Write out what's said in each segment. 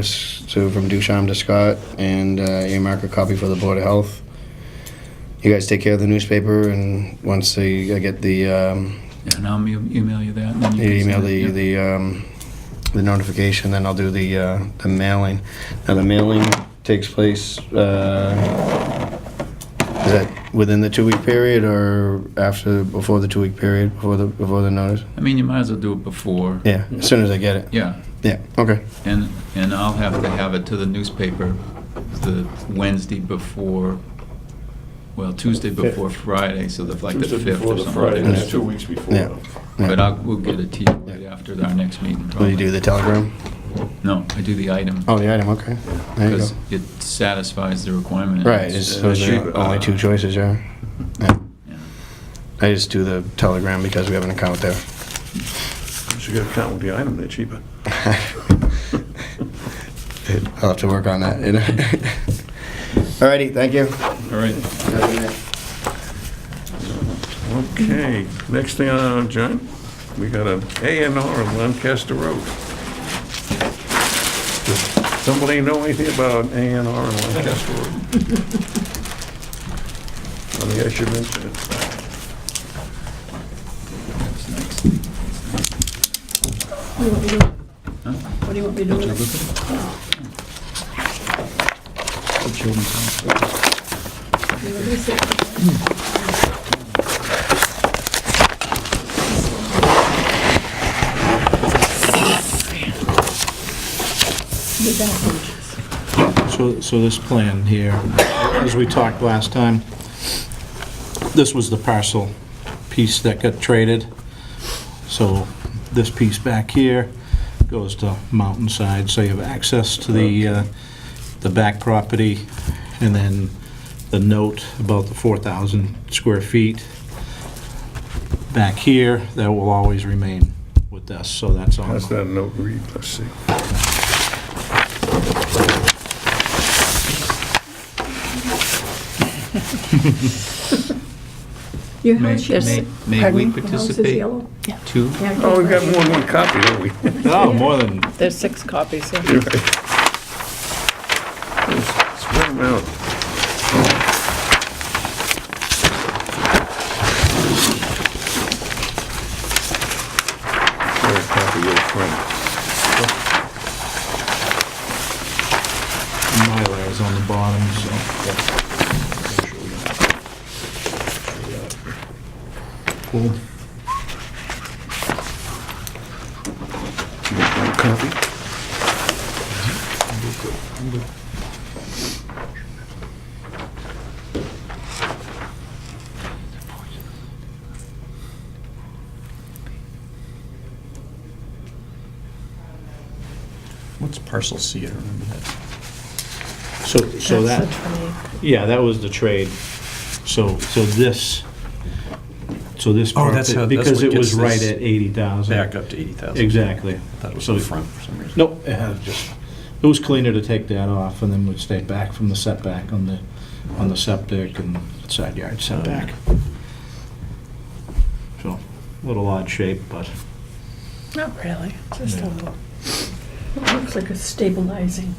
This to from Ducharme to Scott and uh, earmark a copy for the Board of Health. You guys take care of the newspaper and once the, I get the, um, Yeah, and I'll me- email you that. and then you you can email send it, the, yeah. the, um, the notification, then I'll do the, uh, the mailing. Now, the mailing takes place, uh, is that within the two-week period or after, before the two-week period, before the, before the notice? I mean, you might as well do it before. Yeah, as soon as I get it. Yeah, Yeah, okay. and, and I'll have to have it to the newspaper the Wednesday before, well, Tuesday before Friday, so the, like the Tuesday 5th before or the something. Friday, like that's that. two weeks before. Yeah. Yeah. But uh, I'll, we'll get it to you right after our next meeting. Will you probably. do the telegram? No, I do the item. Oh, the item, okay. There you go. Because it satisfies the requirement. Right, it's, uh, those cheap, are only uh, two choices, yeah. Yeah. yeah. I just do the telegram because we have an account there. So you gotta count with the item, they're cheaper. I'll have to work on that. you know. Alrighty, thank you. All right. Okay, next thing on our agenda, we got a A and R on Lancaster Road. Does Somebody know anything about an A and R on Lancaster Road? I think I should mention it. That's next. What do you want me to do? What do you want me to do? with it? The children's hospital. You want me to sit? The back pages. So, so this plan here, as we talked last time, this was the parcel piece that got traded. So this piece back here goes to Mountainside, so you have access to the, uh, the back property. And then the note about the 4,000 square feet back here, that will always remain with us, so that's on. How's that note read? Let's see. Your May- house, yes. may- may Pardon we me? Your house is participate? yellow? Two? Yeah, I Oh, we've can't- got more than one copy, don't we? Oh, more than, There's six copies here. You're right. Let's Spread them out. Very copy your friend. Mylar is on the bottom, so. Cool. Copy? What's parcel C? I don't remember that. So, so That's that, the 20. yeah, that was the trade. So, so this, so this. Oh, that's part- how- that's Because what it was gets right this at eighty thousand. Back up to 80,000. Exactly. That was So- the front for some reason. Nope, it had just, it was cleaner to take that off and then we'd stay back from the setback on the, on the septic and side yard setback. So, a little odd shape, but Not really, just a little. It Looks like a stabilizing,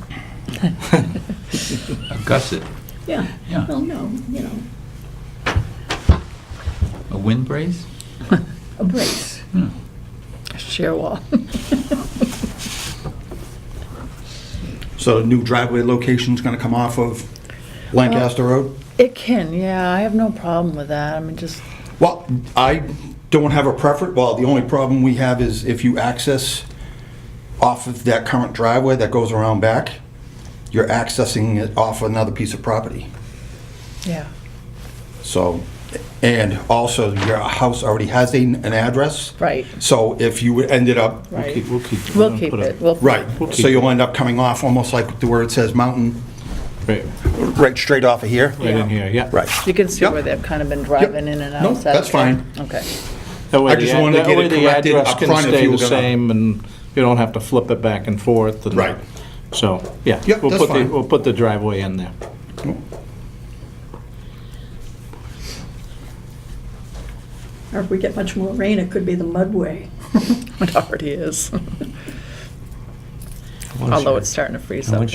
A gusset, yeah. Yeah. Well, no, you know, a wind brace? a brace. Sheer wall. So the new driveway location's gonna come off of Uh, Lancaster Road? It can, yeah, I have no problem with that, I mean, just, Well, I don't have a preference, well, the only problem we have is if you access off of that current driveway that goes around back, you're accessing it off another piece of property. yeah. So, and also, your house already has a- an address. Right. So if you ended up, we'll keep, we'll keep. We'll keep put a- it, we'll. right, We'll so keep- you'll end up coming off almost like the where it says mountain, Right, right straight off of here. right in here, yeah. Right. You can see Yep. where they've kind of been driving in and out. No, Is that that's okay? fine. Okay, That way I the just ad- wanted to that get way it the corrected address up can front if stay you were the gonna- same, and you don't have to flip it back and forth. and- Right. So, yeah. Yep, we'll that's put the- fine. We'll put the driveway in there. Or if we get much more rain, it could be the mudway. it already is. Well, although sure. it's starting to freeze And up. once